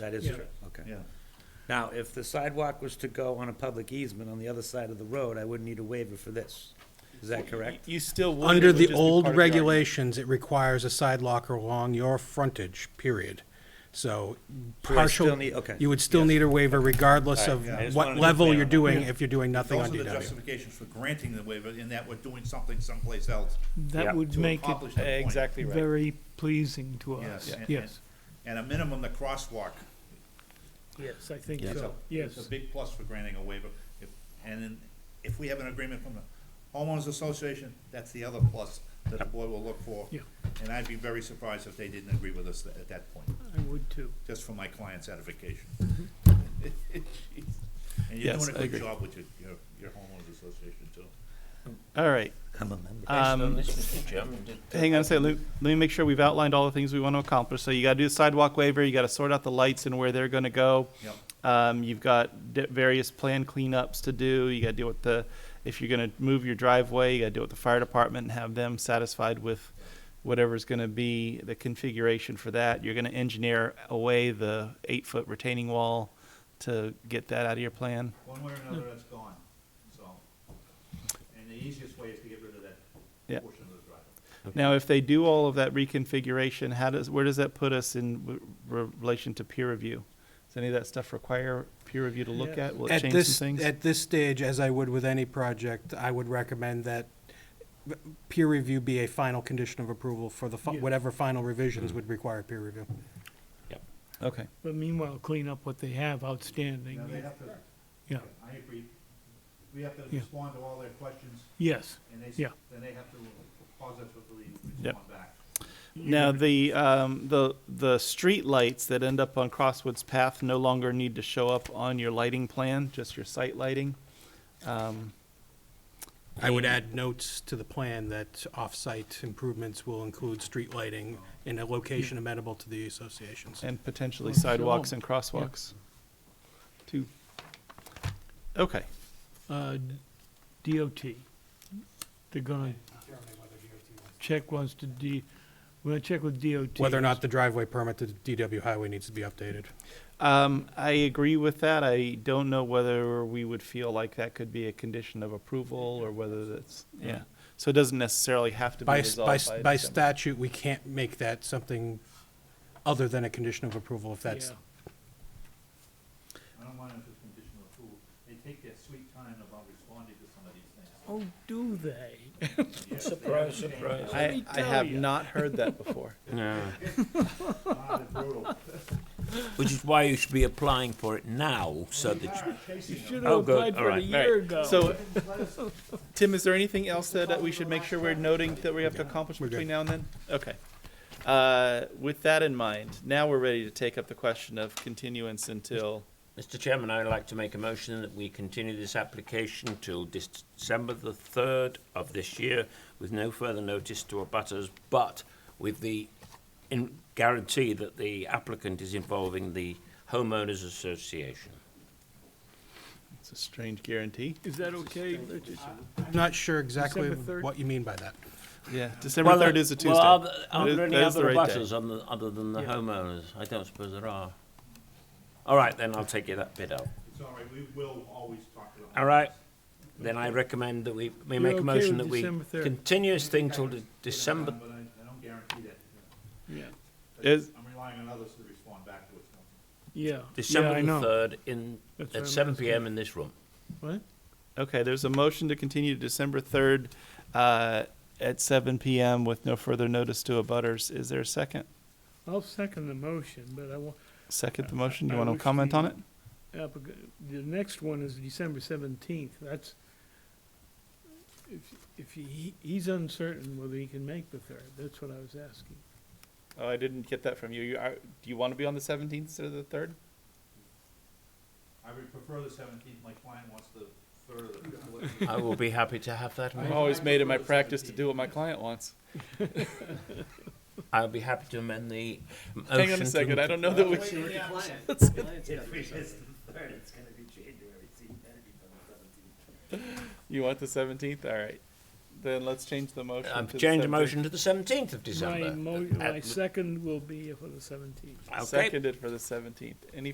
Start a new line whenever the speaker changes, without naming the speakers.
That is
Yeah.
true, okay.
yeah.
Now, if the sidewalk was to go on a public easement on the other side of the road, I wouldn't need a waiver for this. Is that correct?
You still would.
Under
it would
the
just be
old
part of the argument.
regulations, it requires a side locker along your frontage, period. So
So I
partial,
still need- okay.
you would still
Yes.
need a waiver regardless
All right,
of
yeah, I just wanted
what
to be
level
clear
you're
on that.
doing, if you're doing nothing
Those
on
are the
DW.
justifications for granting the waiver, in that we're doing something someplace else.
Yeah.
That would
To
make
accomplish that
it
point.
Exactly right.
very pleasing to
Yes.
us.
and-
Yes,
And a minimum, the crosswalk
yes, I think
is a,
so,
is a
yes.
big plus for granting a waiver. If- And then, if we have an agreement from the homeowners association, that's the other plus that the board will look for.
Yeah.
And I'd be very surprised if they didn't agree with us tha- at that point,
I would too.
just for my client's satisfaction. And you're
Yes,
doing
I
a good
agree.
job with your, your- your homeowners association too.
All right.
I'm a member.
Um, Hang on a second. Let, let me make sure we've outlined all the things we want to accomplish. So you got to do the sidewalk waiver. You got to sort out the lights and where they're going to go.
Yep.
Um, you've got d- various plan cleanups to do. You got to deal with the, if you're going to move your driveway, you got to deal with the fire department and have them satisfied with whatever's going to be the configuration for that. You're going to engineer away the eight foot retaining wall to get that out of your plan.
One way or another, that's gone, so. And the easiest way is to get rid of
Yeah.
that portion of the driveway.
Now, if they do all of that reconfiguration, how does, where does that put us in w- relation to peer review? Does any of that stuff require peer review to look at? Will it
At
change
this,
some things?
at this stage, as I would with any project, I would recommend that peer review be a final condition of approval for the, fi-
Yeah.
whatever final
Mm-hmm.
revisions would require peer review.
Okay,
But meanwhile, clean up what they have outstanding.
Now, they have to,
Yeah,
I agree, we have to
Yeah.
respond to all their questions,
yes.
and they, s-
Yeah.
then they have to positively
Yep.
respond back.
now, the, um, the, the street lights that end up on Crosswoods Path no longer need to show up on your lighting plan, just your site lighting. Um,
I would add notes to the plan that off-site improvements will include street lighting in a location amenable to the associations.
and potentially
Oh,
Well, sure
sidewalks
won't.
and crosswalks. Two. Okay,
Uh, DOT, they're gonna check wants to D, we're gonna check with DOT.
Whether or not the driveway permit to DW Highway needs to be updated.
Um, I agree with that. I don't know whether we would feel like that could be a condition of approval or whether that's, yeah. So it doesn't necessarily have to be
By, s- by,
resolved
s-
by.
by
December.
statute, we can't make that something other than a condition of approval if that's,
Yeah.
I don't mind if it's conditional approval, they take their sweet time about responding to some of these things.
Oh, do they?
Yes, they understand.
Let
I,
me
I
tell
have
ya.
not heard that before.
Ah, they're brutal.
Which is why you should be applying for it now, so that you,
You
Chasing them.
should
Oh,
have
good.
applied
All
for it a
right.
year ago.
So, Tim, is there anything else that that we should make sure we're noting that we have to accomplish
We're good.
between now and then? Okay. Uh, with that in mind, now we're ready to take up the question of continuance until,
Mr. Chairman, I would like to make a motion that we continue this application till dis- December the third of this year with no further notice to abutters, but with the in guarantee that the applicant is involving the homeowners association.
it's a strange guarantee.
Is that okay? Richard?
I'm not sure exactly
December third?
what you mean by that.
Yeah, December
Well,
third is a Tuesday.
Well, are
That
there, are
is-
there any
that is the
other
right day.
abutters on the, other than the
Yeah.
homeowners? I don't suppose there are. All right, then I'll take you that bit out.
It's all right, we will always talk about.
All right, then I recommend that we, we
You're
make
okay
a motion
with
that we
December third?
continue this thing till the December,
But I, I don't guarantee that.
Yeah,
Is-
I'm relying on others to respond back to what's coming.
yeah. Yeah, I
December the
know.
third in,
That's what
at
I'm
seven
asking.
PM in this room.
What?
Okay, there's a motion to continue to December 3rd uh, at 7 PM with no further notice to abutters. Is there a second?
I'll second the motion, but I want,
Second the motion? You
I
want to
wish
comment
we-
on it?
the next one is December seventeenth, that's, if, if he, he's uncertain whether he can make the third, that's what I was asking.
Oh, I didn't get that from you. You are, do you want to be on the 17th instead of the 3rd?
I would prefer the seventeenth, my client wants the third of the.
I will be happy to have that,
I've
amendment.
Oh.
always made it my practice to do what my client wants.
I'll be happy to amend the motion.
Hang on a
to-
second, I don't know that we, you want the 17th? All right. Then let's change the motion.
I've
to the
changed the
17th.
motion to the seventeenth of
My
December.
mo,
Uh,
my second will be for the seventeenth.
okay.
Seconded for the seventeenth. Any